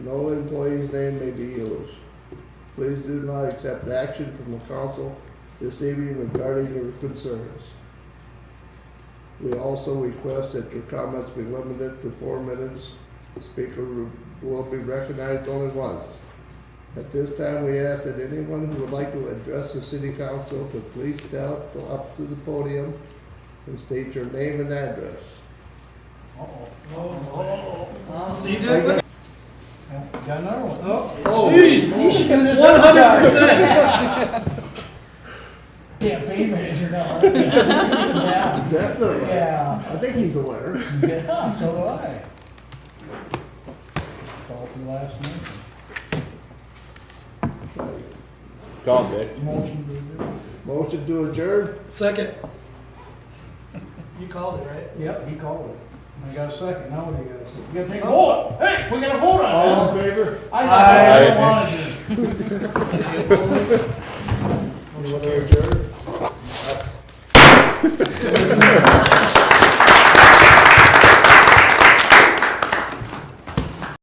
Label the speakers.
Speaker 1: No employee's name may be used. Please do not accept action from the council this evening regarding your concerns. We also request that your comments be limited to four minutes. Speaker will be recognized only once. At this time, we ask that anyone who would like to address the city council to please step up to the podium and state your name and address.
Speaker 2: See, dude?
Speaker 1: Thank you.
Speaker 3: Got another one.
Speaker 2: Oh,
Speaker 3: Jeez, you should do this
Speaker 2: one
Speaker 3: every
Speaker 2: hundred
Speaker 3: time.
Speaker 2: percent.
Speaker 3: Campaign manager now. Yeah,
Speaker 1: Definitely.
Speaker 3: yeah,
Speaker 1: I think he's aware.
Speaker 3: yeah, so do I. Call for the last name.
Speaker 4: Call him, Dick.
Speaker 3: Motion to adjourn.
Speaker 1: Motion to adjourn?
Speaker 2: Second. You called it, right?
Speaker 3: Yep, he called it. Oh. I got a second, now what do you got a second? You gotta take a vote. Hey, we gotta vote
Speaker 1: All
Speaker 3: on
Speaker 1: in
Speaker 3: this.
Speaker 1: favor?
Speaker 3: I thought I don't wanna do it.
Speaker 1: Motion to adjourn?